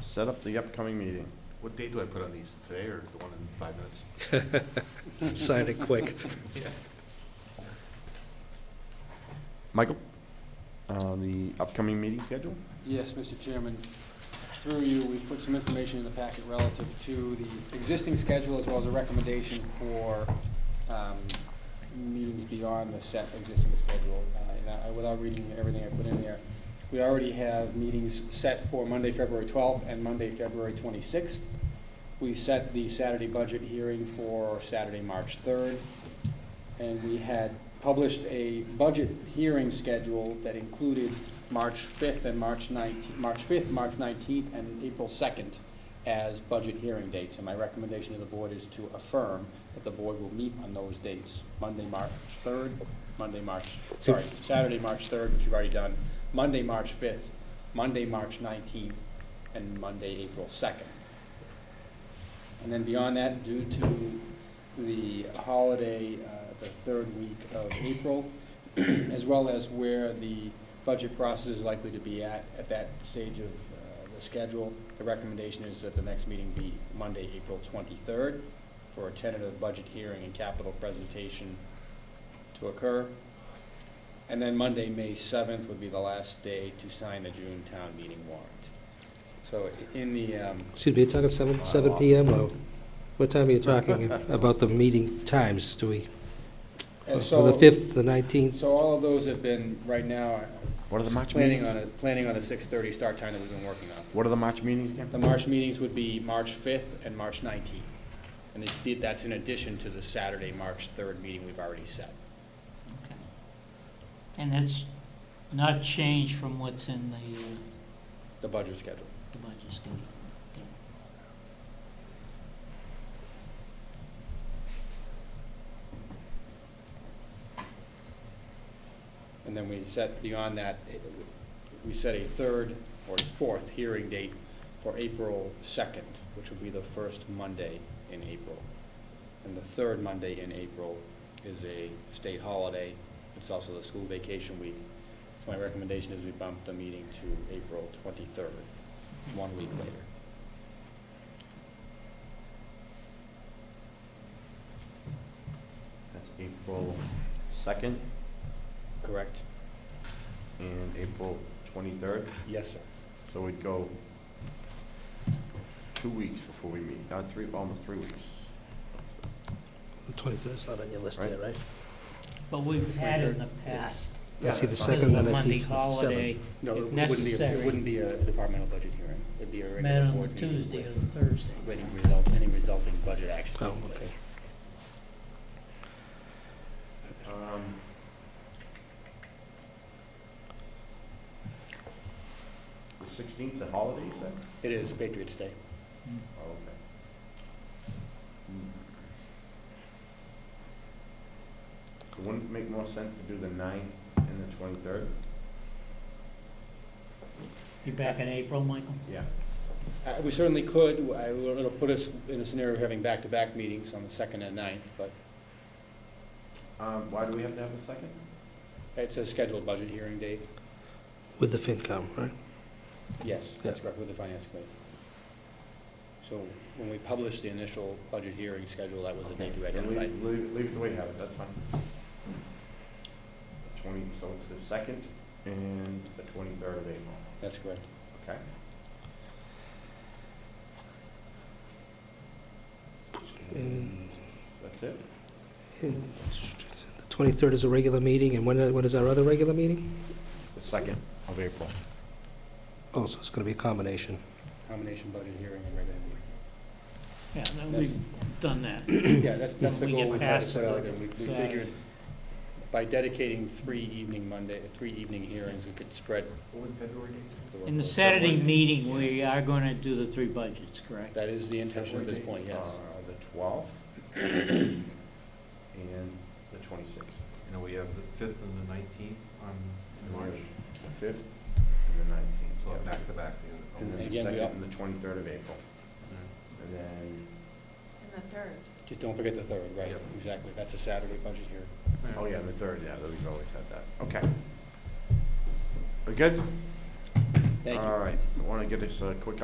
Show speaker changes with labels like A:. A: set up the upcoming meeting.
B: What date do I put on these? Today or the one in five minutes?
C: Sign it quick.
A: Michael, uh, the upcoming meeting schedule?
D: Yes, Mr. Chairman. Through you, we've put some information in the packet relative to the existing schedule as well as a recommendation for um, meetings beyond the set existing schedule. Uh, and I- Without reading everything I put in there, we already have meetings set for Monday, February 12th and Monday, February 26th. We set the Saturday budget hearing for Saturday, March 3rd. And we had published a budget hearing schedule that included March 5th and March 19th, March 5th, March 19th, and April 2nd as budget hearing dates. And my recommendation to the board is to affirm that the board will meet on those dates, Monday, March 3rd, Monday, March, sorry, Saturday, March 3rd, which we've already done, Monday, March 5th, Monday, March 19th, and Monday, April 2nd. And then beyond that, due to the holiday, uh, the third week of April, as well as where the budget process is likely to be at, at that stage of uh, the schedule, the recommendation is that the next meeting be Monday, April 23rd, for a tentative budget hearing and capital presentation to occur. And then Monday, May 7th would be the last day to sign the June town meeting warrant. So i- in the, um,
C: Excuse me, you're talking seven, seven PM or what time are you talking about the meeting times? Do we,
D: and
C: for the
D: Uh, so,
C: fifth, the nineteenth?
D: so all of those have been, right now,
A: What are the March
D: planning on
A: meetings?
D: a, planning on a 6:30 start time that we've been working on.
A: What are the March meetings again?
D: The March meetings would be March 5th and March 19th. And it- that's in addition to the Saturday, March 3rd meeting we've already set.
E: And that's not changed from what's in the, uh,
D: The budget schedule.
E: the budget schedule. Okay.
D: And then we set, beyond that, it- we set a third or fourth hearing date for April 2nd, which will be the first Monday in April. And the third Monday in April is a state holiday. It's also the school vacation week. So my recommendation is we bump the meeting to April 23rd, one week later.
A: That's April 2nd
D: Correct?
A: and April 23rd.
D: Yes, sir.
A: So we'd go two weeks before we meet, not three, almost three weeks.
C: Twenty-third's not on your list there, right?
E: But we've had in the past.
C: I see the
E: uh,
C: second, then I
E: Monday
C: see the
E: holiday,
C: seventh.
D: No, it
E: If
D: wouldn't be, a-
E: necessary.
D: it wouldn't be a departmental budget hearing. It'd be a
E: met
D: regular
E: on the
D: board meeting
E: Tuesday or
D: with
E: the Thursday.
D: any result, any resulting budget action.
C: Oh, okay.
A: Um, The 16th, 's a holiday, you said?
D: It is Patriots' Day.
E: Mm.
A: Oh, okay. Hmm. So wouldn't it make more sense to do the 9th and the 23rd?
E: You back in April, Michael?
A: Yeah.
D: Uh, We certainly could, I- it'll put us in a scenario of having back-to-back meetings on the second and ninth, but
A: Um, Why do we have to have a second?
D: it's a scheduled budget hearing date.
C: With the FinCom, right?
D: Yes, that's correct, with the finance committee. So when we published the initial budget hearing schedule, that was the date we
A: Okay, then leave-
D: identified.
A: Leave, leave it the way you have it, that's fine. Twenty, so it's the second and the twenty-third of April,
D: That's correct.
A: okay?
C: And-
A: That's it?
C: and The twenty-third is a regular meeting, and when, when is our other regular meeting?
A: The second of April.
C: Oh, so it's gonna be a combination.
D: Combination budget hearing and regular
E: Yeah, no,
D: That's-
E: we've done that.
D: meeting. Yeah, that's, that's the
E: We get
D: goal we tried to
E: past
D: put out,
E: the
D: and we we
E: Saturday.
D: figured by dedicating three evening Monday, three evening hearings, we could spread.
B: What would February dates?
D: the work
E: In the
D: load.
E: Saturday meeting, we are going to do the three budgets, correct?
D: That is the intention at this
A: February
D: point,
A: dates
D: yes.
A: are The twelfth and the twenty-sixth.
B: You know, we have the fifth and the nineteenth on in March,
A: The fifth and the
B: so
A: nineteenth.
B: back to back.
A: And then the
D: Again, we
A: second
D: all-
A: and the twenty-third of April, and then,
F: And the third.
A: uh,
D: Just don't forget the third, right,
B: Yep.
D: exactly, that's a Saturday budget here.
A: oh yeah, the third, yeah, we've always had that, okay. We good?
D: Thank you.
A: All right, want to get us a quick